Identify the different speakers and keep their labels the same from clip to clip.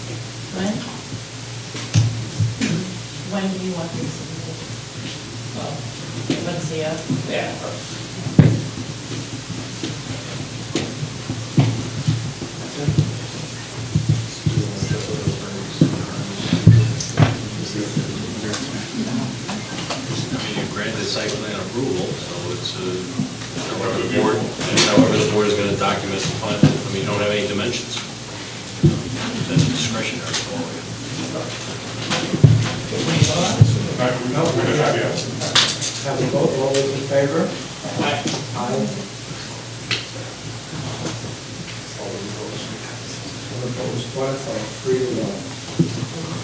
Speaker 1: When? When do you want this submitted? Well, let's see, uh,
Speaker 2: Yeah.
Speaker 3: I mean, you granted site plan approval, so it's, uh, however the board, however the board is going to document the final, I mean, you don't have any dimensions. That's discretionary. so,
Speaker 4: No, we don't have yet.
Speaker 5: Have a vote, all those in favor? Aye. All opposed, one, five, three to one.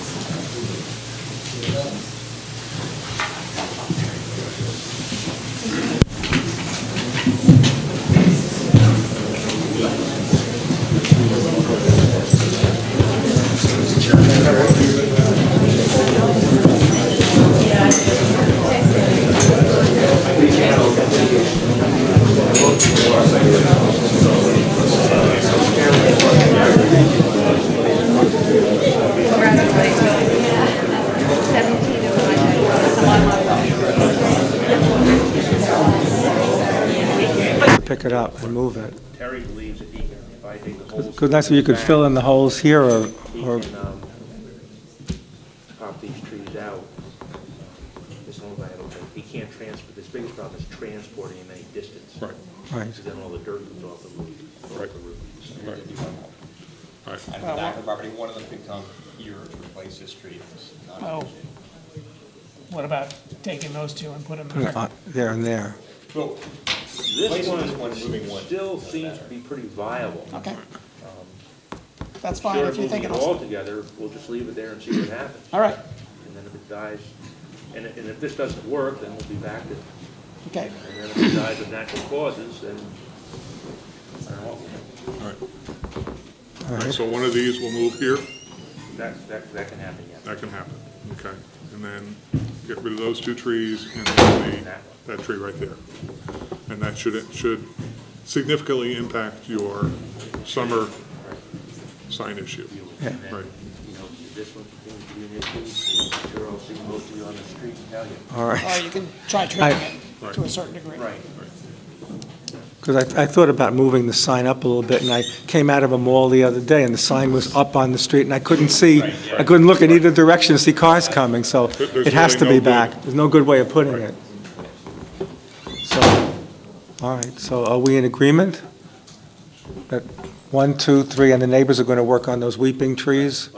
Speaker 5: Pick it up and move it.
Speaker 6: Terry believes that he can, if I dig the holes.
Speaker 5: Because that's where you could fill in the holes here or,
Speaker 6: He
Speaker 5: or
Speaker 6: can, um, pop these trees out. This whole guy, I don't think, he can't transport, his biggest problem is transporting in any distance. Right.
Speaker 5: right.
Speaker 6: Because then all the dirt comes off the roof. Right.
Speaker 2: And the back of the property, one of them could come here to replace this tree. if it's not-
Speaker 7: Oh. What about taking those two and putting them
Speaker 5: Put it
Speaker 7: there?
Speaker 5: on- there and there.
Speaker 2: Well,
Speaker 6: This
Speaker 2: Replacing this one, moving
Speaker 6: one
Speaker 2: one.
Speaker 6: still seems to be pretty viable. Um,
Speaker 7: Okay. That's fine,
Speaker 6: Sure,
Speaker 7: if you
Speaker 6: moving
Speaker 7: think
Speaker 6: it
Speaker 7: it'll,
Speaker 6: all together, we'll just leave it there and see what happens.
Speaker 7: all right,
Speaker 6: And then if it dies, and, and if this doesn't work, then we'll be back to,
Speaker 7: okay.
Speaker 6: and then if it dies of natural causes, then, I don't know,
Speaker 5: All
Speaker 4: All right,
Speaker 5: right.
Speaker 4: So one of these will move here,
Speaker 6: that, that, that can happen, yeah.
Speaker 4: that can happen, okay? And then get rid of those two trees and then the, that tree right there. And that should, it should significantly impact your summer sign issue.
Speaker 5: Yeah.
Speaker 6: And then,
Speaker 4: Right.
Speaker 6: you know, if this one continues to be an issue, I'm sure I'll see most of you on the street and tell you.
Speaker 5: All
Speaker 7: Or
Speaker 5: right.
Speaker 7: you can try trimming
Speaker 4: Right.
Speaker 7: it to a certain degree.
Speaker 5: Because I, I thought about moving the sign up a little bit, and I came out of a mall the other day, and the sign was up on the street, and I couldn't see, I couldn't look in either direction to see cars coming, so
Speaker 4: There- there's
Speaker 5: it has to
Speaker 4: really
Speaker 5: be
Speaker 4: no
Speaker 5: back. There's no good way of putting it. So, all right, so are we in agreement? That one, two, three, and the neighbors are going to work on those weeping trees?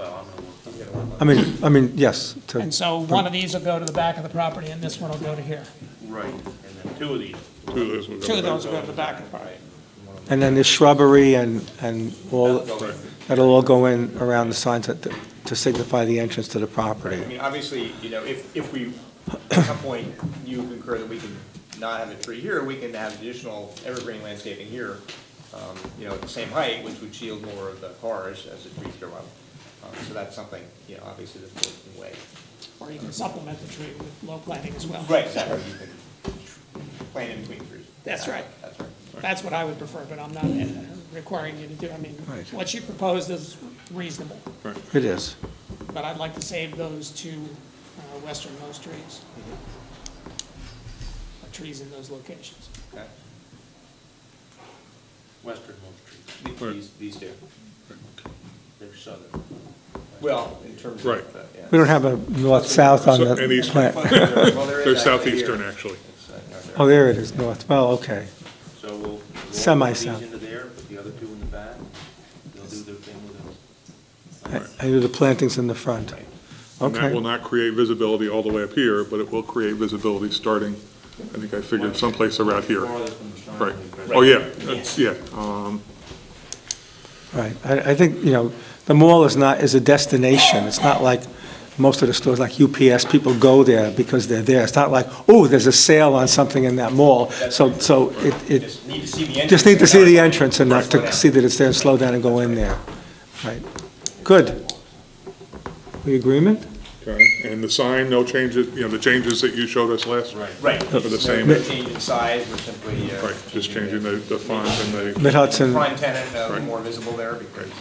Speaker 5: I mean, I mean, yes, to-
Speaker 7: And so one of these will go to the back of the property and this one will go to here.
Speaker 6: Right, and then two of these,
Speaker 4: Two of those will go
Speaker 7: Two of
Speaker 4: back.
Speaker 7: those will go to the back of the property.
Speaker 5: and then the shrubbery and, and all, that'll all go in around the signs that- to signify the entrance to the property.
Speaker 2: I mean, obviously, you know, if, if we, at some point, you concur that we can not have a tree here, we can have additional evergreen landscaping here, um, you know, at the same height, which would shield more of the cars as the trees grow up. Um, So that's something, you know, obviously the board can weigh.
Speaker 7: Or you can supplement the tree with low planting as well.
Speaker 2: Right, exactly. You can Plant in between trees.
Speaker 7: That's right.
Speaker 2: That's right.
Speaker 7: That's what I would prefer, but I'm not uh, requiring you to do, I mean,
Speaker 5: Right.
Speaker 7: what you proposed is reasonable,
Speaker 5: It is.
Speaker 7: but I'd like to save those two uh, westernmost trees. Or Trees in those locations.
Speaker 2: Okay.
Speaker 6: western most trees,
Speaker 2: These, these do.
Speaker 6: they're southern.
Speaker 2: Well, in terms of.
Speaker 4: Right.
Speaker 2: the- yeah.
Speaker 5: We don't have a north-south on
Speaker 4: So- and
Speaker 5: the
Speaker 4: eastern.
Speaker 5: plant.
Speaker 2: Well, there is
Speaker 4: They're
Speaker 2: actually here.
Speaker 4: southeastern, actually.
Speaker 2: It's, uh, not there.
Speaker 5: Oh, there it is, north. Well, okay.
Speaker 6: So we'll, we'll roll these
Speaker 5: Semi-south.
Speaker 6: into there, put the other two in the back, they'll do their thing with it.
Speaker 5: I I do the plantings in the front.
Speaker 4: And that will
Speaker 5: Okay.
Speaker 4: not create visibility all the way up here, but it will create visibility starting, I think I figured someplace around here.
Speaker 6: Farther from the shine.
Speaker 4: Right. Oh, yeah, it's, yeah. Um,
Speaker 5: Right. I I think, you know, the mall is not, is a destination. It's not like most of the stores, like UPS, people go there because they're there. It's not like, oh, there's a sale on something in that mall. So, so it, it
Speaker 2: Just need to see the entrance.
Speaker 5: just need to see the
Speaker 2: Right.
Speaker 5: entrance enough to see that it's there, and slow down and go in there. Right. Good. We agreement?
Speaker 4: okay. And the sign, no changes, you know, the changes that you showed us last.
Speaker 2: Right.
Speaker 4: For the same-
Speaker 2: No change in size, we're simply. uh,
Speaker 4: Right, just changing the the font and the.
Speaker 5: Mid Hudson.
Speaker 2: Prime tenant, uh, more visible there because